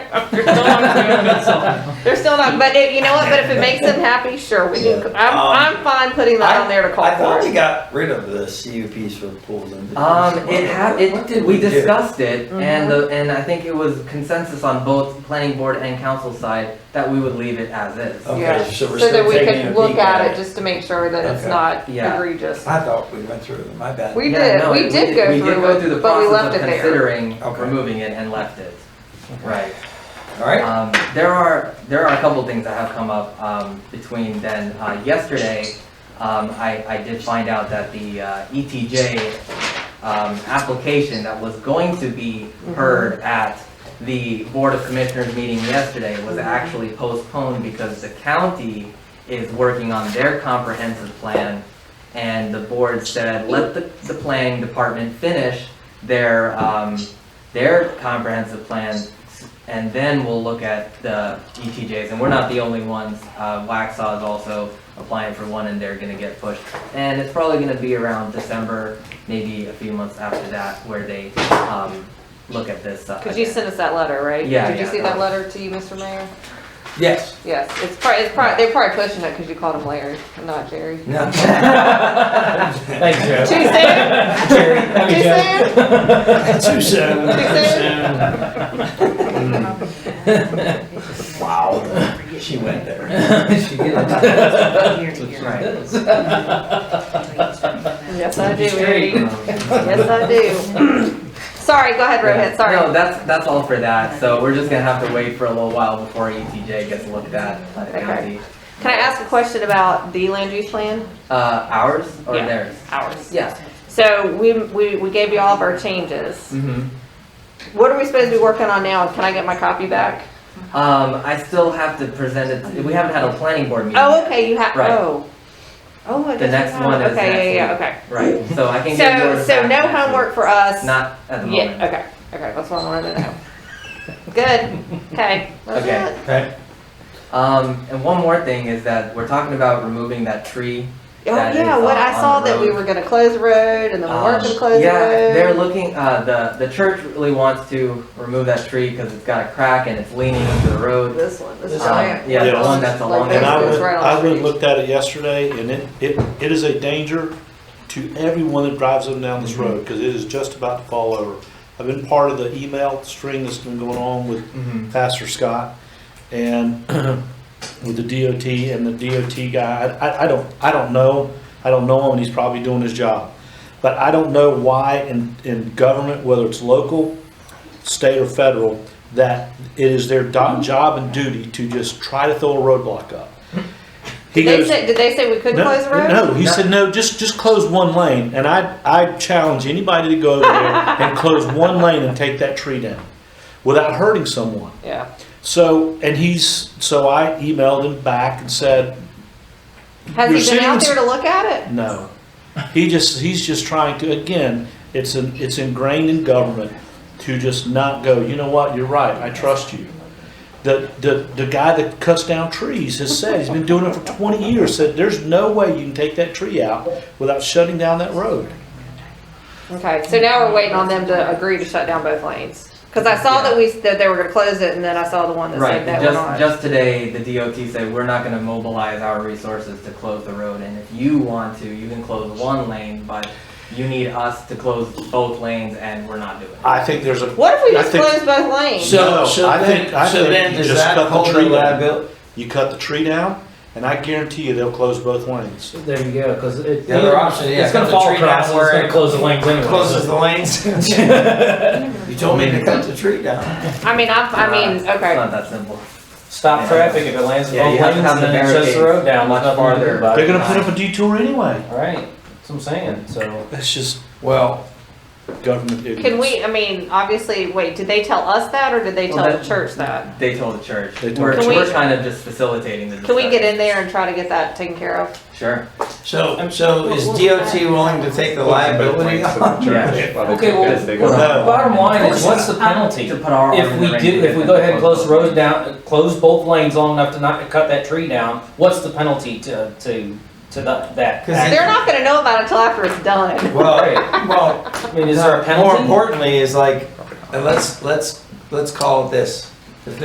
They're still not, but it, you know what, but if it makes them happy, sure, we can, I'm, I'm fine putting that on there to call Um, I thought for we it. got rid of the CUPs for pools and. Um, beaches. it ha- What- what it, did we do? discussed it, and the, and I think it was consensus on both planning board and council side that we would leave it as is. Yeah, Okay, so we're So that still we taking E a could look peek at it, just to make sure that it's Okay. not Yeah. egregious. I thought we went through them, my bad. We Yeah, did, no, we it- did go We did go through through the it, but we process left of it there. considering Okay. removing it and left it, right. Alright, Um, there are, there are a couple things that have come up, um, between then, uh, yesterday, um, I, I did find out that the, uh, ETJ, um, application that was going to be heard at the Board of Commissioners meeting yesterday was actually postponed because the county is working on their comprehensive plan, and the board said, let the, the planning department finish their, um, their comprehensive plan, and then we'll look at the ETJs, and we're not the only ones. Uh, Waxaw is also applying for one, and they're gonna get pushed. And it's probably gonna be around December, maybe a few months after that, where they, um, look at this. uh, Cause you again. sent us that letter, right? Yeah, Did you yeah. see that letter to you, Mr. Mayor? yes, Yes, it's probably, it's probably, they're probably pushing it because you called him Larry, not Jerry. no. Thank you, Jeff. Too soon? Too soon? Too soon. Too Wow, she went there. She did. Right. Yes, I do, Straight. Um, Eddie. Yes, I do. Sorry, go ahead, Rohit, No, sorry. that's, that's all for that, so we're just gonna have to wait for a little while before ETJ gets looked at by the Okay. county. Can I ask a question about the land use plan? Uh, ours or Yeah. theirs? Ours. Yeah. So we, we, we gave you all of our changes. Mm-hmm. What are we supposed to be working on now? Can I get my copy back? Um, I still have to present it, we haven't had a planning board meeting. Oh, okay, you have, Right. oh. Oh, I guess. The you next have- one is Okay, yeah, yeah, next okay. Right, so I can get So, yours so back no next week. homework for us? Not at the Yeah, moment. okay, okay, that's what I wanted to know. Good, okay, Oh, that's Okay. it. Okay, Um, and one more thing is that we're talking about removing that tree. Oh, that yeah, is, what uh, I on saw the that we road. were gonna close the road and then we weren't Um, gonna close the Yeah, they're road. looking, uh, the, the church really wants to remove that tree because it's got a crack and it's leaning into the road. This one, this This Um, giant. Yeah, the Yes. one that's along Like And I It's went, there. right on the I went and street. looked at it yesterday, and it, it, it is a danger to everyone that drives them down this road, because it is just about to fall over. I've been part of the email string that's been going on with Mhm. Pastor Scott and with the DOT and the DOT guy. I- I, I don't, I don't know. I don't know him and he's probably doing his job. But I don't know why in, in government, whether it's local, state or federal, that it is their do- job and duty to just try to throw a roadblock up. He Did they goes- say, did they say we couldn't no, close the road? No, he No. said, no, just, just close one lane. And I, I challenge anybody to go over there and close one lane and take that tree down without hurting someone. Yeah, So, and he's, so I emailed him back and said, You're has he been sitting in out s- there to look at it? no. He just, he's just trying to, again, it's an, it's ingrained in government to just not go, you know what, you're right, I trust you. The, the, the guy that cuts down trees has said, he's been doing it for twenty years, said, there's no way you can take that tree out without shutting down that road. Okay, so now we're waiting on them to agree to shut down both lanes. Cause I saw that we, that they were gonna close it and then I saw the one that Right, said that we're just, not. just today, the DOT said, we're not gonna mobilize our resources to close the road, and if you want to, you can close one lane, but you need us to close both lanes, and we're not doing it. I think there's a, What if we I just think- close both lanes? No, so, so I then, think- I so think then you does just that cut the hold the tree down. liability? you cut the tree down, and I guarantee you they'll close both lanes. There you go, because it. The other option, yeah, It's gonna cut the fall tree down across, and it's where gonna it close the lanes anyway. Closes so- the lanes. You told me to cut the tree down. I mean, I, I mean, It's okay. not that simple. Stop traffic if it lands in Yeah, both you have to lanes have and the then it shuts barricades the road down. much There's nothing to do farther. about They're it. gonna put up a detour anyway. All right, that's what I'm saying, so. That's just Well, government ignorance. Can we, I mean, obviously, wait, did they tell us that or did they Well, tell the that- Mm-hmm. church that? They told the church, They told we're, the we're church. kind of just facilitating the Can we get discussion. in there and try to get that taken care of? Sure, so, so is DOT willing to take the liability on? yeah. Okay, well, No. bottom line is, what's the penalty? To put our. If we do, if we go ahead and close the road down, close both lanes long enough to not cut that tree down, what's the penalty to, to, to that, that? 'Cause act? They're not gonna know about it until after it's done. Well, well, I mean, is there a More penalty? importantly, is like, uh, let's, let's, let's call it this.